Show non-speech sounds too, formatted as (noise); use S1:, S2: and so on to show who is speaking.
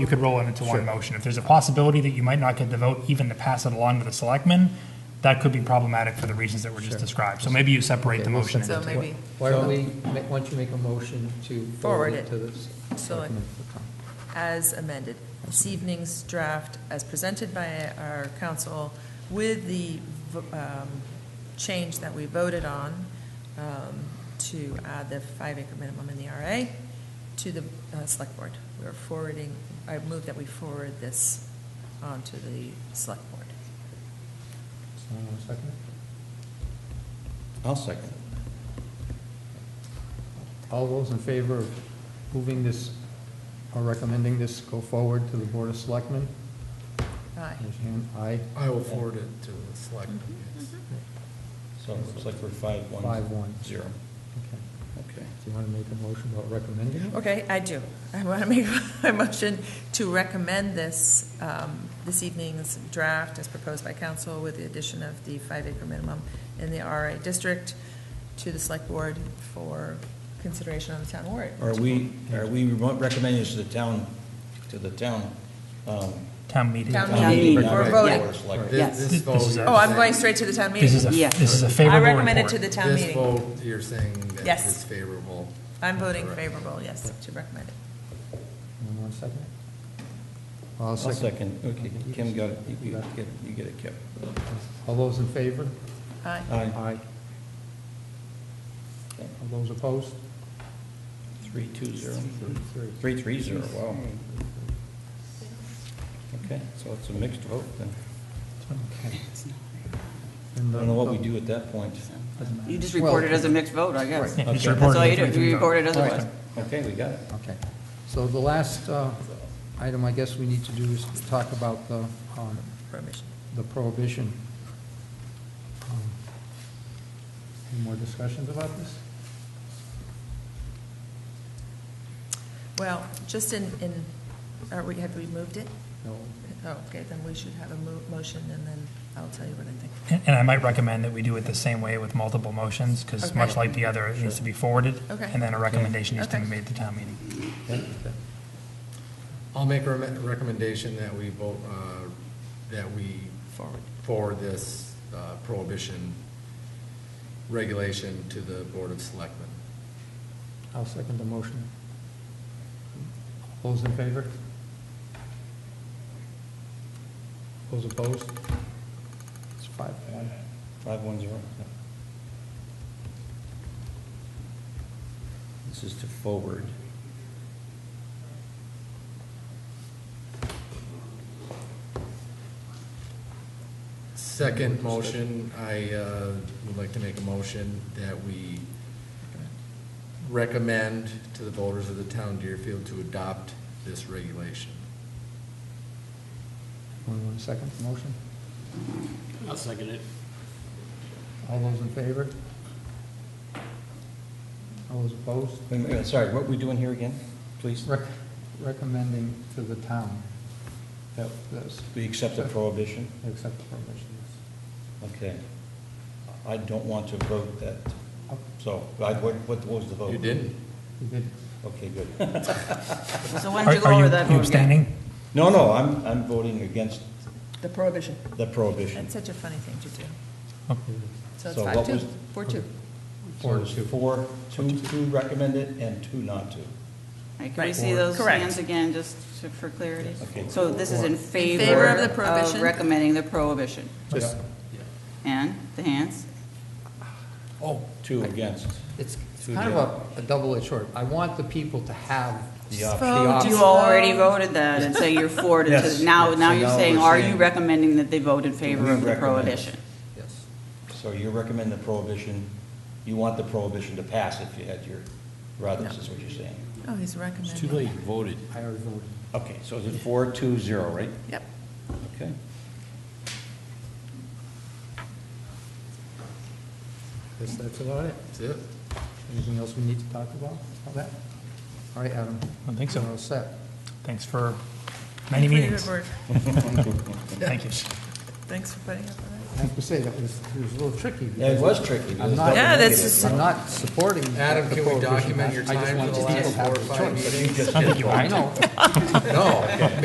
S1: you could roll it into one motion. If there's a possibility that you might not get the vote even to pass it along to the selectmen, that could be problematic for the reasons that were just described. So maybe you separate the
S2: Okay, we'll
S1: motion.
S2: separate
S1: into
S3: So maybe-
S2: Why don't we, ma- why don't you make a motion to forward it to this?
S3: Select- as amended. This evening's draft, as presented by our council, with the um, change that we voted on um, to add the five-acre minimum in the RA to the uh, select board. We are forwarding, I move that we forward this on to the select board.
S2: Someone want to second it?
S4: I'll second.
S2: All those in favor of moving this, or recommending this go forward to the Board of Selectmen?
S3: Aye.
S2: Raise your hand. Aye,
S5: I will forward it to the
S3: Mm-hmm.
S5: selectmen. yes.
S4: So it looks like we're five,
S2: five,
S4: one,
S2: one.
S4: zero.
S2: Okay.
S4: Okay.
S2: Do you want to make a motion about recommending it?
S3: Okay, I do. I want to make a (laughs) motion to recommend this, um, this evening's draft as proposed by council with the addition of the five acre minimum in the RA district to the select board for consideration on the town warrant.
S4: Are we, are we recommending this to the town, to the town? um,
S1: Town meeting.
S3: Town
S4: town
S3: meeting,
S4: meeting, not
S3: we're
S4: the
S3: voting.
S4: board of selectmen?
S5: This-
S6: Yes.
S5: This vote.
S1: This is our-
S5: you're
S3: Oh, I'm going straight
S5: saying-
S3: to the town
S1: This is a,
S3: meeting.
S6: Yeah.
S1: this is a
S3: I
S1: favorable
S3: recommend it to
S1: report.
S3: the town
S5: This
S3: meeting.
S5: vote, you're saying that
S3: Yes.
S5: it's favorable.
S3: I'm voting
S5: Correct.
S3: favorable, yes, to recommend it.
S2: Anyone want to second it? I'll
S4: I'll
S2: second.
S4: second. Okay, Kim got it. You you get, you get it, Kim.
S2: All those in favor?
S3: Aye.
S4: Aye.
S2: All those opposed?
S4: Three, two, zero.
S2: Three.
S4: Three, three, zero, wow. Okay, so it's a mixed vote then.
S2: Okay.
S6: It's not
S2: And
S4: I
S2: the-
S4: don't know what we do at that point.
S6: there. You just report it as a mixed vote, I guess.
S1: Yeah, it's
S4: Okay.
S6: That's
S1: reported
S6: all
S1: in
S6: you
S1: three
S6: do,
S1: times.
S6: you report it as it was.
S4: Okay, we got it.
S2: Okay. So the last uh, item I guess we need to do is talk about the, um,
S3: Permission.
S2: the prohibition. Um, Any more discussions about this?
S3: Well, just in, in, are we, have we moved it?
S2: No.
S3: Oh, okay, then we should have a mo- motion and then I'll tell you what I think.
S1: And and I might recommend that we do it the same way with multiple motions, because
S3: Okay.
S1: much like the other, it needs to be forwarded.
S3: Okay.
S1: And then a recommendation needs to be
S3: Okay.
S1: made to town meeting.
S5: I'll make a rem- recommendation that we vote, uh, that we
S3: Forward.
S5: forward this uh, prohibition regulation to the Board of Selectmen.
S2: I'll second the motion. Those in favor? Those opposed? It's five, one.
S4: Five, one, zero. This is to forward.
S5: Second motion, I uh, would like to make a motion that we recommend to the voters of the town Deerfield to adopt this regulation.
S2: Anyone want to second the motion?
S7: I'll second it.
S2: All those in favor? All those opposed?
S4: Wait a minute, Sorry, what are we doing here again, please?
S2: Rec- Recommending to the town that this,
S4: We accept the prohibition?
S2: accept the permission.
S4: Okay. I don't want to vote that,
S2: Oh,
S4: so, I- what what was the vote?
S5: You didn't?
S2: We did,
S4: Okay, good.
S6: So
S1: Are
S6: why don't you
S1: are
S6: go over
S1: you
S6: that
S1: you
S6: vote again?
S1: abstaining?
S4: No, no, I'm, I'm voting against
S3: The prohibition.
S4: the prohibition.
S3: That's such a funny thing to do. So it's
S4: So what
S3: five, two,
S4: was-
S3: four, two.
S4: So it's Four, two, two recommend it, and two not to.
S6: All right, Can we see those
S3: Correct.
S6: hands again, just to- for clarity?
S4: Okay.
S6: So this is in favor.
S3: favor of the prohibition.
S6: recommending the prohibition.
S5: Just, yeah.
S6: And the hands?
S2: oh,
S4: Two against.
S2: it's it's
S4: Two
S2: kind
S4: did.
S2: of a, a double-edged sword. I want the people to have,
S4: The option.
S3: Vote
S6: You
S3: slow.
S6: already voted that, and so you're for it.
S4: Uh, (laughs) Yes.
S6: So Now,
S4: So
S6: now you're
S4: now
S6: saying,
S4: we're
S6: are you
S4: saying-
S6: recommending that they vote in
S4: We
S6: favor of the
S4: recommend.
S6: prohibition?
S2: yes,
S4: So you recommend the prohibition, you want the prohibition to pass if you had your, rather, this is what you're saying.
S3: Oh, he's
S7: It's too
S3: recommending.
S7: late, you voted.
S2: I already voted.
S4: Okay, so is it four, two, zero, right?
S3: Yep.
S4: Okay.
S2: That's, that's about it.
S5: That's it?
S2: Anything else we need to talk about, about that? All right, Adam.
S1: I don't think so.
S2: We're all set.
S1: Thanks for many
S3: Pretty good
S1: meetings.
S3: work.
S1: Thank you.
S3: Thanks for putting up with
S2: I
S3: that.
S2: have to say, that was, it was a little tricky.
S4: Yeah, it
S2: because
S4: was tricky.
S2: I'm not-
S3: Yeah, that's just-
S2: I'm not supporting.
S5: Adam,
S2: the
S5: can we
S2: prohibition.
S5: document your
S2: I just
S5: time
S2: want
S5: for the
S2: people
S5: last
S2: to have
S5: four or
S2: the
S5: five
S2: choice.
S5: meetings?
S1: I don't think you want
S2: I know.
S5: No,